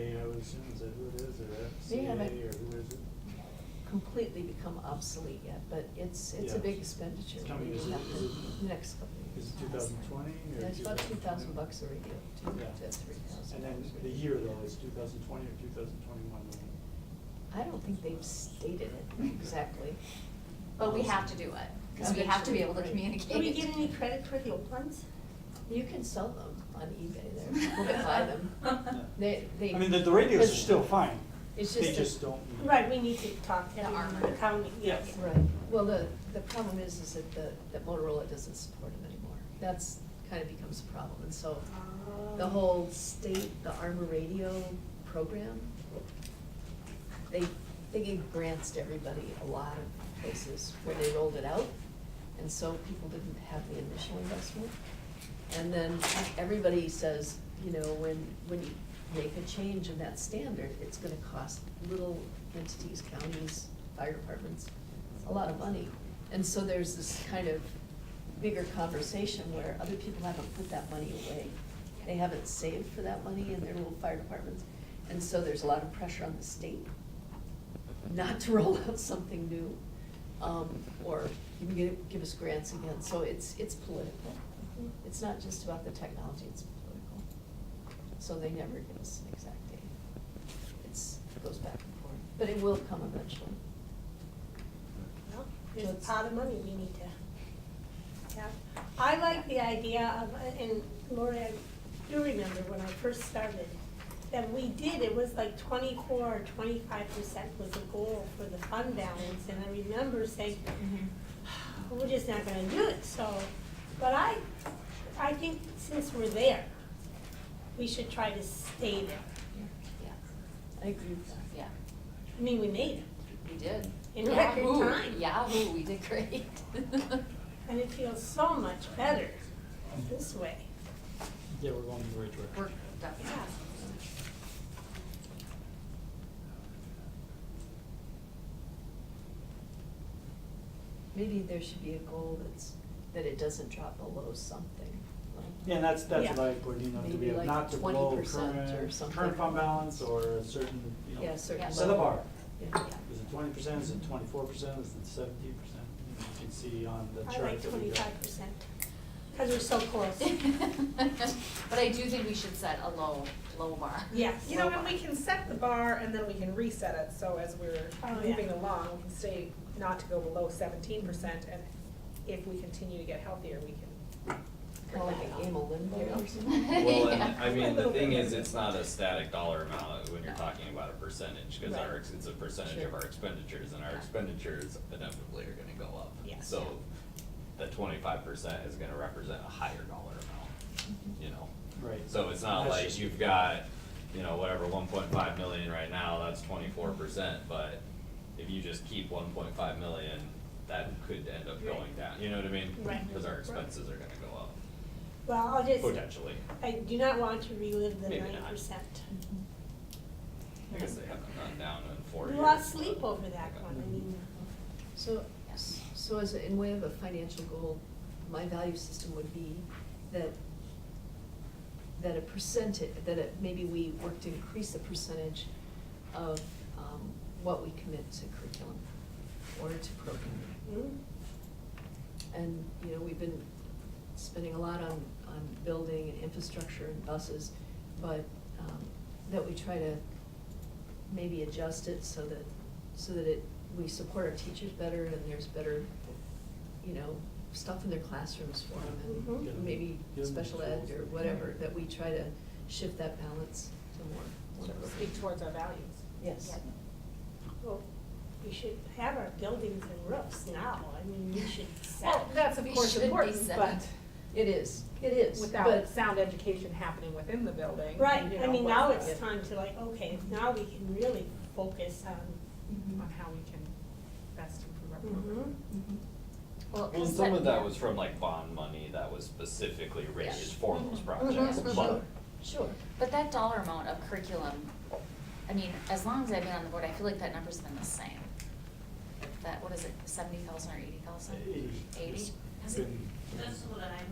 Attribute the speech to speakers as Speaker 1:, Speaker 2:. Speaker 1: elections, and who it is, or
Speaker 2: They haven't-
Speaker 1: FCA, or who is it?
Speaker 2: completely become obsolete yet, but it's, it's a
Speaker 1: Yeah.
Speaker 2: big expenditure.
Speaker 1: It's coming,
Speaker 2: We
Speaker 1: is it-
Speaker 2: have to-
Speaker 1: is it-
Speaker 2: the Next couple of years.
Speaker 1: Is it two thousand twenty, or?
Speaker 2: Yeah, it's about two
Speaker 1: 2021?
Speaker 2: thousand bucks a review, two
Speaker 1: Yeah.
Speaker 2: to three thousand.
Speaker 1: And then the year though, is two thousand twenty or two thousand twenty-one?
Speaker 2: I don't think they've stated it exactly.
Speaker 3: But we have to do it, because we have to be able to communicate.
Speaker 4: Do we get any credit for the old ones?
Speaker 2: You can sell them on eBay there, people can buy them. They, they.
Speaker 1: I mean, the, the radios are
Speaker 2: but-
Speaker 1: still fine.
Speaker 2: It's
Speaker 1: They
Speaker 2: just that-
Speaker 1: just don't. need-
Speaker 4: Right, we need to talk to
Speaker 3: The armor.
Speaker 4: the county, yes.
Speaker 2: Right, well, the, the problem is, is that the, that Motorola doesn't support them anymore. That's kind of becomes a problem, and so the
Speaker 4: Um,
Speaker 2: whole state, the Armor Radio program, they, they gave grants to everybody, a lot of places where they rolled it out. And so people didn't have the initial investment. And then everybody says, you know, when, when you make a change in that standard, it's gonna cost little entities, counties, fire departments, a lot of money. And so there's this kind of bigger conversation where other people haven't put that money away. They haven't saved for that money in their little fire departments. And so there's a lot of pressure on the state not to roll out something new, um, or even give, give us grants again, so it's, it's political. It's not just about the technology, it's political. So they never give us an exact date. It's, it goes back and forth, but it will come eventually.
Speaker 4: well, There's a pot of money we need to have. I like the idea of, uh, and Lori, I do remember when I first started, that we did, it was like twenty-four or twenty-five percent was the goal for the fund balance. And I remember saying, "Ah, we're just not gonna do it, so, but I, I think since we're there, we should try to stay there.
Speaker 3: Yeah,
Speaker 2: I agree with that.
Speaker 3: yeah,
Speaker 4: I mean, we made it,
Speaker 3: we did.
Speaker 4: In
Speaker 3: Yeah,
Speaker 4: record
Speaker 3: ooh,
Speaker 4: time.
Speaker 3: Yeah, ooh, we did great.
Speaker 4: and it feels so much better this way.
Speaker 1: Yeah, we're going in the right direction.
Speaker 3: We're
Speaker 4: Yeah.
Speaker 3: definitely,
Speaker 2: Maybe there should be a goal that's, that it doesn't drop below something, like.
Speaker 1: Yeah, and that's, that's
Speaker 4: Yeah.
Speaker 1: what I put, you know, to
Speaker 2: Maybe
Speaker 1: be able
Speaker 2: like
Speaker 1: not to blow
Speaker 2: 20% or
Speaker 1: current,
Speaker 2: something.
Speaker 1: current fund balance or a certain, you know.
Speaker 2: Yeah, certain
Speaker 1: Set a
Speaker 2: level.
Speaker 1: bar.
Speaker 2: Yeah.
Speaker 3: yeah.
Speaker 1: Is it twenty percent, is it twenty-four percent, is it seventeen percent? You can see on the
Speaker 4: I
Speaker 1: chart
Speaker 4: like
Speaker 1: that we got.
Speaker 4: twenty-five percent, because we're so
Speaker 5: Oh,
Speaker 4: close.
Speaker 3: But I do think we should set a low, low bar.
Speaker 4: Yes.
Speaker 5: You know, and we can set the bar and then we can reset it, so as we're
Speaker 4: Oh, yeah.
Speaker 5: moving along, we can stay not to go below seventeen percent, and if we continue to get healthier, we can.
Speaker 2: Kind of like a game of limbo or something.
Speaker 6: Well,
Speaker 3: Yeah.
Speaker 6: and I mean, the thing is,
Speaker 5: Yeah.
Speaker 6: it's not a static dollar amount when you're
Speaker 3: No.
Speaker 6: talking about a percentage, cause
Speaker 5: Right.
Speaker 6: our, ex- it's a percentage
Speaker 2: Sure.
Speaker 6: of our expenditures, and our
Speaker 3: Yeah.
Speaker 6: expenditures inevitably are gonna go up.
Speaker 4: Yes.
Speaker 6: So, the twenty-five percent is gonna represent a higher dollar amount, you know?
Speaker 1: Right.
Speaker 6: So it's not
Speaker 1: That's
Speaker 6: like
Speaker 1: just-
Speaker 6: you've got, you know, whatever, one point five million right now, that's twenty-four percent, but if you just keep one point five million, that could end up going down, you know what I mean?
Speaker 4: Right.
Speaker 6: Cause our expenses are gonna go up,
Speaker 4: Well, I'll just,
Speaker 6: potentially,
Speaker 4: I do not want to relive the
Speaker 6: Maybe
Speaker 4: nine
Speaker 6: not.
Speaker 4: percent.
Speaker 6: I guess they haven't gone down in four
Speaker 4: We
Speaker 6: years.
Speaker 4: lost sleep
Speaker 6: but-
Speaker 4: over that one, I mean,
Speaker 2: So, so as, in way of a financial goal, my value system would be that, that a percentage, that it, maybe we work to increase the percentage of, um, what we commit to curriculum or to program.
Speaker 4: mm,
Speaker 2: And, you know, we've been spending a lot on, on building and infrastructure and buses, but, um, that we try to maybe adjust it so that, so that it, we support our teachers better and there's better, you know, stuff in their classrooms for
Speaker 5: Mm-hmm.
Speaker 2: them
Speaker 4: Mhm.
Speaker 2: and maybe
Speaker 1: Give them
Speaker 2: special ed or
Speaker 1: tools.
Speaker 2: whatever, that we try to shift that balance to more, whatever.
Speaker 5: Speak towards our values.
Speaker 2: Yes.
Speaker 4: well, we should have our buildings and roofs now, I mean, we should
Speaker 5: Well,
Speaker 4: set.
Speaker 5: that's of
Speaker 3: We
Speaker 5: course
Speaker 3: should be
Speaker 5: important,
Speaker 3: set.
Speaker 5: but
Speaker 2: It is, it is,
Speaker 5: without
Speaker 2: but,
Speaker 5: sound education happening within the building,
Speaker 4: Right,
Speaker 5: you
Speaker 4: I
Speaker 5: know,
Speaker 4: mean,
Speaker 5: what's
Speaker 4: now
Speaker 5: the-
Speaker 4: it's time to like, okay, now we can really focus on,
Speaker 5: On how we can best improve our program.
Speaker 4: mhm,
Speaker 2: Mhm.
Speaker 3: Well,
Speaker 6: Well,
Speaker 3: is
Speaker 6: some of that
Speaker 3: yeah.
Speaker 6: was from like bond money that was specifically raised for those
Speaker 4: Mm-hmm.
Speaker 3: Mhm.
Speaker 6: projects,
Speaker 3: Mhm.
Speaker 6: but
Speaker 2: sure.
Speaker 3: But that dollar amount of curriculum, I mean, as long as I've been on the board, I feel like that number's been the same. That, what is it, seventy thousand or eighty thousand?
Speaker 1: Eighty.
Speaker 3: Eighty?
Speaker 1: It's
Speaker 3: Has it-
Speaker 1: been-
Speaker 7: That's what I'm